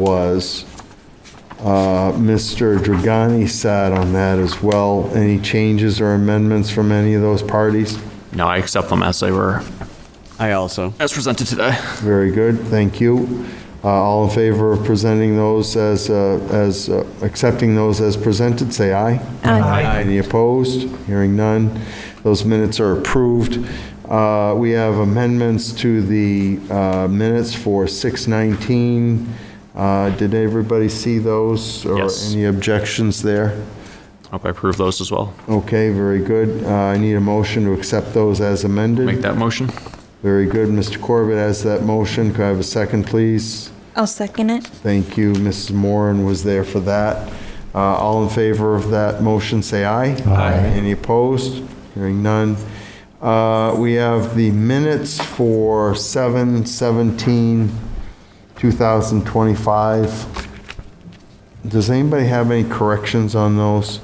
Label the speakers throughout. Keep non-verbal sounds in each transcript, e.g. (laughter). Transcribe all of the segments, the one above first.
Speaker 1: was, uh, Mr. Dragani sat on that as well. Any changes or amendments from any of those parties?
Speaker 2: No, I accept them as they were,
Speaker 3: I also.
Speaker 2: as presented today.
Speaker 1: Very good, thank you. Uh, All in favor of presenting those as, uh, as, uh, accepting those as presented, say aye. Aye. Any opposed? Hearing none. Those minutes are approved. Uh, We have amendments to the uh, minutes for 619. Uh, Did everybody see those?
Speaker 2: Yes.
Speaker 1: Or any objections there?
Speaker 2: Hope I approve those as well.
Speaker 1: Okay, very good. Uh, I need a motion to accept those as amended.
Speaker 2: Make that motion.
Speaker 1: Very good. Mr. Corbett has that motion. Could I have a second, please?
Speaker 4: I'll second it.
Speaker 1: Thank you. Mrs. Moran was there for that. Uh, All in favor of that motion, say aye. Aye. Any opposed? Hearing none. Uh, We have the minutes for 7/17/2025. Does anybody have any corrections on those?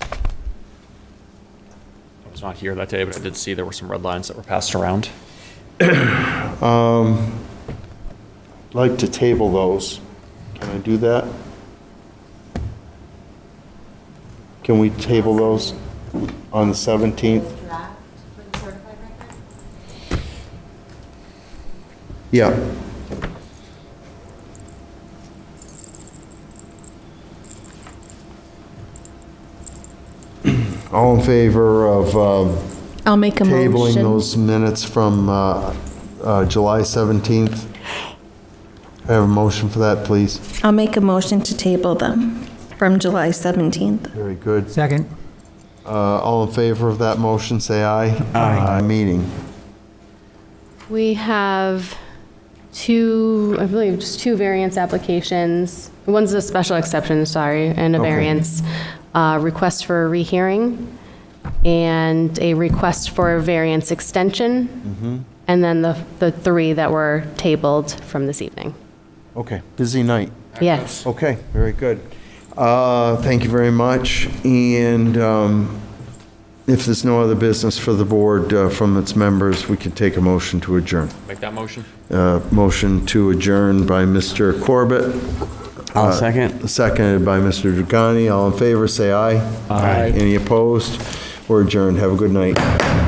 Speaker 2: I was not here that day, but I did see there were some red lines that were passed around.
Speaker 1: Like to table those. Can I do that? Can we table those on the 17th?
Speaker 5: draft for the certified record?
Speaker 1: Yeah. (clears throat) All in favor of um,
Speaker 4: I'll make a motion.
Speaker 1: tabling those minutes from uh, uh, July 17th? I have a motion for that, please.
Speaker 4: I'll make a motion to table them from July 17th.
Speaker 1: Very good.
Speaker 6: Second.
Speaker 1: Uh, All in favor of that motion, say aye. Aye. Meeting.
Speaker 5: We have two, I believe, just two variance applications. One's a special exception, sorry, and a
Speaker 1: Okay.
Speaker 5: variance. uh, Request for a rehearing and a request for a variance extension. And then the, the three that were tabled from this evening.
Speaker 1: Okay, busy night.
Speaker 5: Yes.
Speaker 1: Okay, very good. Uh, Thank you very much. And um, if there's no other business for the board uh, from its members, we can take a motion to adjourn.
Speaker 2: Make that motion.
Speaker 1: Uh, Motion to adjourn by Mr. Corbett,
Speaker 3: I'll second.
Speaker 1: seconded by Mr. Dragani. All in favor, say aye. Aye. Any opposed? We're adjourned. Have a good night.